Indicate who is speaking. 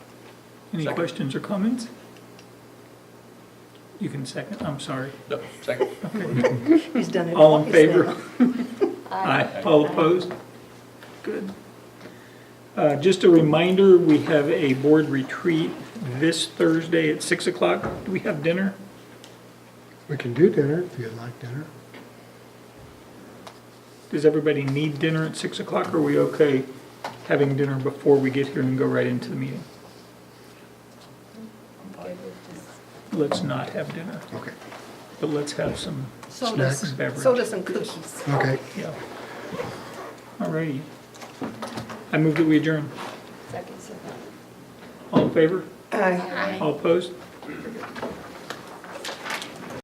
Speaker 1: Any
Speaker 2: Second.
Speaker 1: questions or comments? You can second, I'm sorry.
Speaker 2: No, second.
Speaker 3: He's done it all.
Speaker 1: All in favor? Aye. All opposed? Good. Uh, Just a reminder, we have a board retreat this Thursday at 6 o'clock. Do we have dinner?
Speaker 4: We can do dinner if you'd like dinner.
Speaker 1: Does everybody need dinner at 6 o'clock? Are we okay having dinner before we get here and go right into the meeting? Let's not have dinner,
Speaker 4: Okay,
Speaker 1: but let's have some
Speaker 4: Sodas.
Speaker 1: beverage.
Speaker 3: Sodas and cookies.
Speaker 4: okay.
Speaker 1: Yeah. All righty. I move that we adjourn.
Speaker 5: Second, so.
Speaker 1: All in favor?
Speaker 3: Aye.
Speaker 1: All opposed?